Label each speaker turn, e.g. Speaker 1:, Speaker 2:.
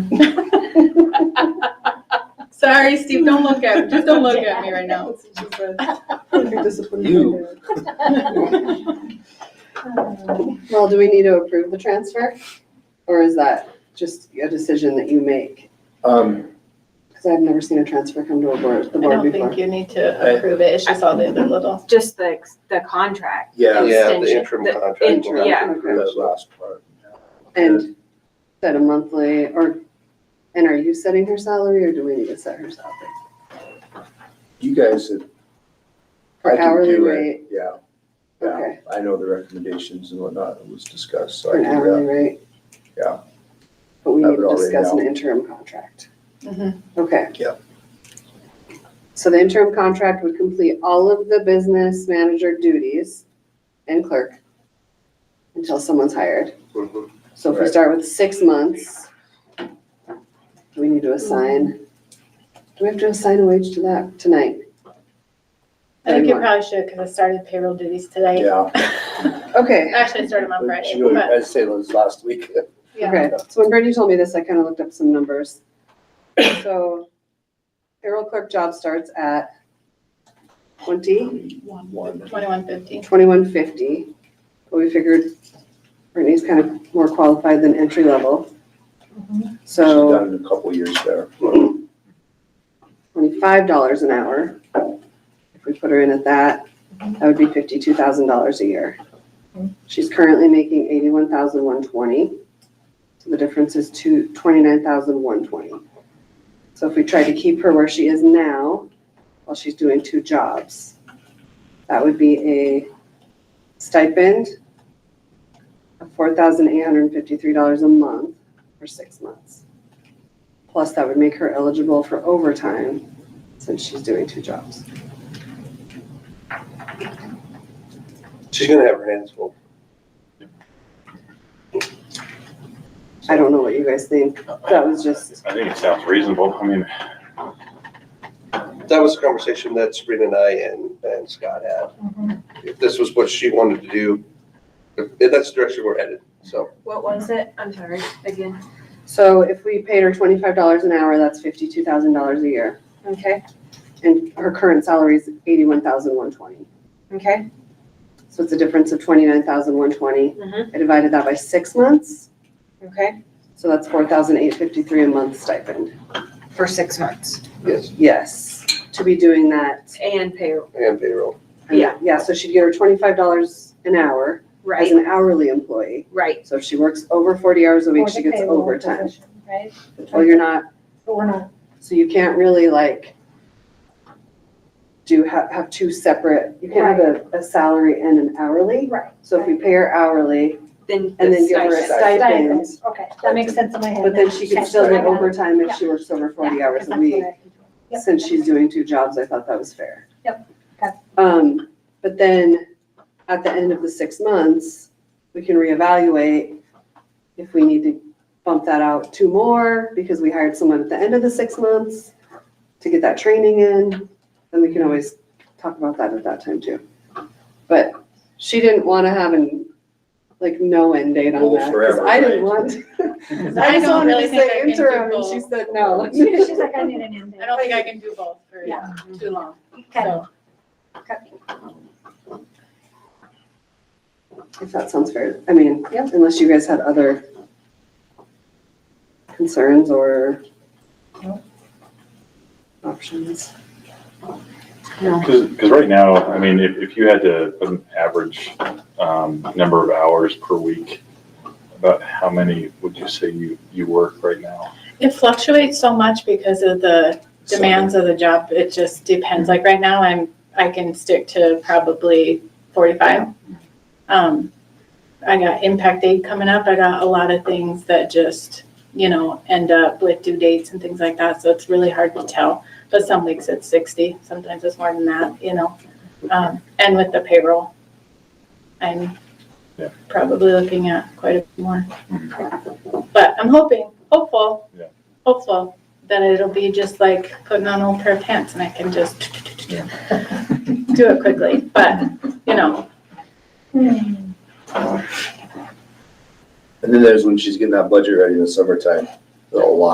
Speaker 1: Sorry, Steve, don't look at, just don't look at me right now.
Speaker 2: You.
Speaker 3: Well, do we need to approve the transfer? Or is that just a decision that you make?
Speaker 2: Um,
Speaker 3: Because I've never seen a transfer come to a board, the
Speaker 1: I
Speaker 3: board
Speaker 1: don't
Speaker 3: before.
Speaker 1: think you need to approve it, it's just all the other little.
Speaker 4: Just the, the contract.
Speaker 2: yeah,
Speaker 4: And
Speaker 5: Yeah, the
Speaker 4: extension-
Speaker 5: interim
Speaker 4: the
Speaker 5: contract.
Speaker 4: int-
Speaker 5: will have
Speaker 4: yeah.
Speaker 5: to approve
Speaker 2: that
Speaker 5: that.
Speaker 2: last part.
Speaker 3: And is that a monthly, or, and are you setting her salary, or do we need to set her salary?
Speaker 2: You guys, have- I
Speaker 3: For
Speaker 2: can
Speaker 3: hourly
Speaker 2: do
Speaker 3: rate,
Speaker 2: it, yeah. Yeah,
Speaker 3: Okay.
Speaker 2: I know the recommendations and whatnot that was discussed, so
Speaker 3: for
Speaker 2: I
Speaker 3: an
Speaker 2: can do
Speaker 3: hourly
Speaker 2: that.
Speaker 3: rate?
Speaker 2: Yeah.
Speaker 3: But we
Speaker 2: Have
Speaker 3: need
Speaker 2: it
Speaker 3: to
Speaker 2: all
Speaker 3: discuss an
Speaker 2: written
Speaker 3: interim contract.
Speaker 1: Mhm.
Speaker 3: Okay.
Speaker 2: Yeah.
Speaker 3: So the interim contract would complete all of the business manager duties and clerk until someone's hired. So
Speaker 5: Mhm.
Speaker 3: if we
Speaker 2: Mm-hmm. Right.
Speaker 3: start with six months, do we need to assign? Do we have to assign a wage to that tonight?
Speaker 1: I think you
Speaker 3: Anymore.
Speaker 1: probably should, because I started payroll duties today.
Speaker 2: Yeah.
Speaker 3: Okay,
Speaker 1: Actually, I started them on Friday,
Speaker 2: She really-
Speaker 1: but,
Speaker 2: I'd say it was last week.
Speaker 1: yeah.
Speaker 3: okay. So when Brittany told me this, I kind of looked up some numbers. So payroll clerk job starts at twenty,
Speaker 2: One.
Speaker 1: Twenty-one fifty.
Speaker 3: twenty-one fifty. But we figured Brittany's kind of more qualified than entry level.
Speaker 2: She's
Speaker 3: So.
Speaker 2: done it a couple years there.
Speaker 3: twenty-five dollars an hour. If we put her in at that, that would be fifty-two thousand dollars a year. She's currently making eighty-one thousand one twenty, so the difference is two, twenty-nine thousand one twenty. So if we try to keep her where she is now, while she's doing two jobs, that would be a stipend of four thousand eight hundred and fifty-three dollars a month for six months. Plus, that would make her eligible for overtime since she's doing two jobs.
Speaker 5: She's gonna have her hands full.
Speaker 3: I don't know what you guys think. That was just,
Speaker 6: I think it sounds reasonable. I mean,
Speaker 5: That was a conversation that Sabrina and I and, and Scott
Speaker 4: Mm-hmm.
Speaker 5: had. If this was what she wanted to do, if that's the direction we're headed, so.
Speaker 4: What was it? I'm sorry, again.
Speaker 3: so if we paid her twenty-five dollars an hour, that's fifty-two thousand dollars a year, okay? And her current salary is eighty-one thousand one twenty, okay? So it's a difference of twenty-nine thousand one twenty.
Speaker 4: Mhm.
Speaker 3: I divided that by six months, okay? So that's four thousand eight fifty-three a month stipend.
Speaker 4: For six months.
Speaker 5: Yes,
Speaker 3: Yes, to be doing that.
Speaker 4: And pay,
Speaker 5: and payroll.
Speaker 4: Yeah.
Speaker 3: Yeah, so she'd get her twenty-five dollars an hour as
Speaker 4: right,
Speaker 3: an hourly employee.
Speaker 4: right.
Speaker 3: So if she works over forty hours a week, she gets overtime. Well, you're not,
Speaker 7: But we're not,
Speaker 3: so you can't really like do, have, have two separate, you can't have a, a salary and an hourly.
Speaker 7: right.
Speaker 3: So if we pay her hourly
Speaker 4: Then
Speaker 3: and then
Speaker 4: the
Speaker 3: give her a
Speaker 4: stipend.
Speaker 3: stipend,
Speaker 7: Stipends, okay, that makes sense in my head.
Speaker 3: but then she could
Speaker 7: Yes,
Speaker 3: still get
Speaker 7: I got it.
Speaker 3: overtime if
Speaker 7: Yeah.
Speaker 3: she works over forty
Speaker 7: Yeah,
Speaker 3: hours a
Speaker 7: that's
Speaker 3: week.
Speaker 7: what I- Yep.
Speaker 3: Since she's doing two jobs, I thought that was fair.
Speaker 7: Yep, okay.
Speaker 3: Um, but then at the end of the six months, we can reevaluate if we need to bump that out two more because we hired someone at the end of the six months to get that training in, then we can always talk about that at that time too. But she didn't want to have an, like, no end date on
Speaker 2: Goal
Speaker 3: that. 'cause
Speaker 2: forever,
Speaker 3: I didn't
Speaker 2: right?
Speaker 3: want, I
Speaker 1: I
Speaker 3: just
Speaker 1: don't
Speaker 3: wanted
Speaker 1: really
Speaker 3: to
Speaker 1: think I
Speaker 3: say
Speaker 1: can do
Speaker 3: interim and
Speaker 1: both.
Speaker 3: she said no.
Speaker 7: She's like, I need an end
Speaker 1: I don't think I can do both for
Speaker 7: Yeah.
Speaker 1: too long,
Speaker 7: Okay,
Speaker 1: so.
Speaker 7: okay.
Speaker 3: If that sounds fair, I mean, unless you guys had other concerns or options.
Speaker 6: because right now, I mean, if, if you had to put an average um, number of hours per week, about how many would you say you, you work right now?
Speaker 1: It fluctuates so much because of the demands of the job, it just depends, like right now, I'm, I can stick to probably forty-five. Um, I got impact aid coming up, I got a lot of things that just, you know, end up with due dates and things like that, so it's really hard to tell. But some weeks it's sixty, sometimes it's more than that, you know, um, and with the payroll, I'm
Speaker 6: Yeah.
Speaker 1: probably looking at quite a bit more.
Speaker 6: Mhm.
Speaker 1: But I'm hoping, hopeful,
Speaker 6: Yeah.
Speaker 1: hopeful that it'll be just like putting on old pair of pants and I can just do it quickly, but, you know,
Speaker 7: Hmm.
Speaker 2: And then there's when she's getting that budget ready in the summertime, a lot